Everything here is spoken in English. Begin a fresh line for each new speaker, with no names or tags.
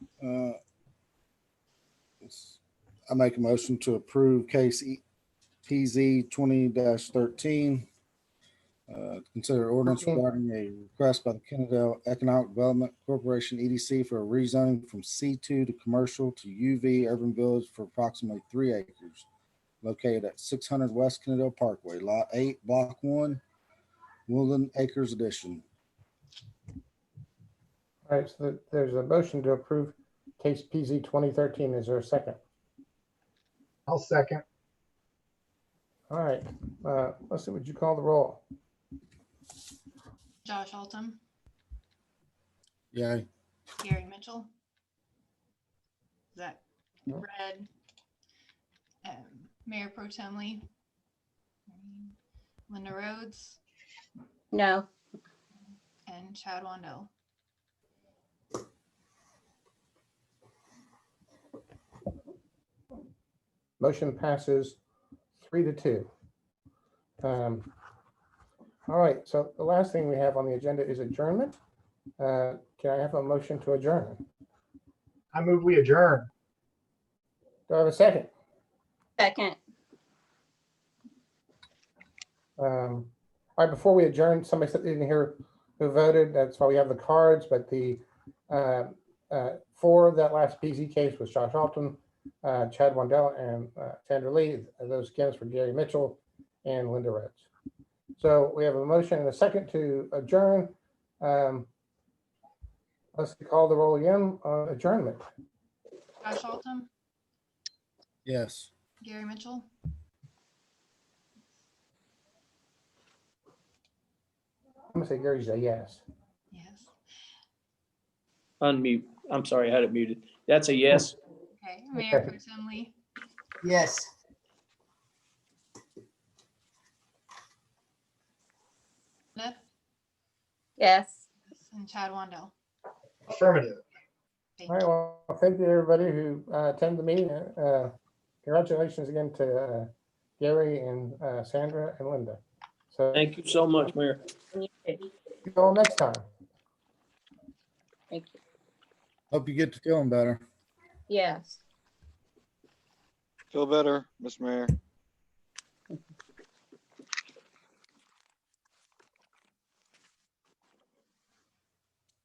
Uh, I make a motion to approve case E- PZ twenty thirteen. Uh, consider ordinance
Okay.
regarding a request by the Kennedale Economic Development Corporation EDC for a rezoning from C two to commercial to UV urban village for approximately three acres. Located at six hundred West Kennedale Parkway, lot eight, block one, Woodland Acres Edition.
All right, so there's a motion to approve case PZ 2013. Is there a second?
I'll second.
All right, uh, Leslie, would you call the roll?
Josh Altum,
Yay.
Gary Mitchell. Zach
No.
Red. um, Mayor Pro Tem Lee. Linda Rhodes
No,
and Chad Wondell.
Motion passes three to two. Um, All right, so the last thing we have on the agenda is adjournment. Uh, Can I have a motion to adjourn?
I move we adjourn.
Do I have a second?
second.
Um, All right, before we adjourn, somebody said they didn't hear who voted. That's why we have the cards, but the uh, uh, for that last PZ case was Josh Alton, uh, Chad Wendell, and uh, Sandra Lee. Those against were Gary Mitchell and Linda Rhodes. So we have a motion and a second to adjourn. Um, Let's call the roll again on adjournment.
Josh Altum,
Yes.
Gary Mitchell.
I'm gonna say Gary's a yes.
Yes.
Unmute. I'm sorry, I had it muted. That's a yes.
Okay, Mayor Pro Tem Lee,
Yes.
Linda,
Yes.
and Chad Wondell.
Affirmative.
Thank
All right,
you.
well, thank you to everybody who uh, attended the meeting. Uh, Congratulations again to uh, Gary and uh, Sandra and Linda. So
Thank you so much, Mayor.
You too.
see you all next time.
Thank you.
Hope you get to feeling better.
Yes.
Feel better, Mr. Mayor.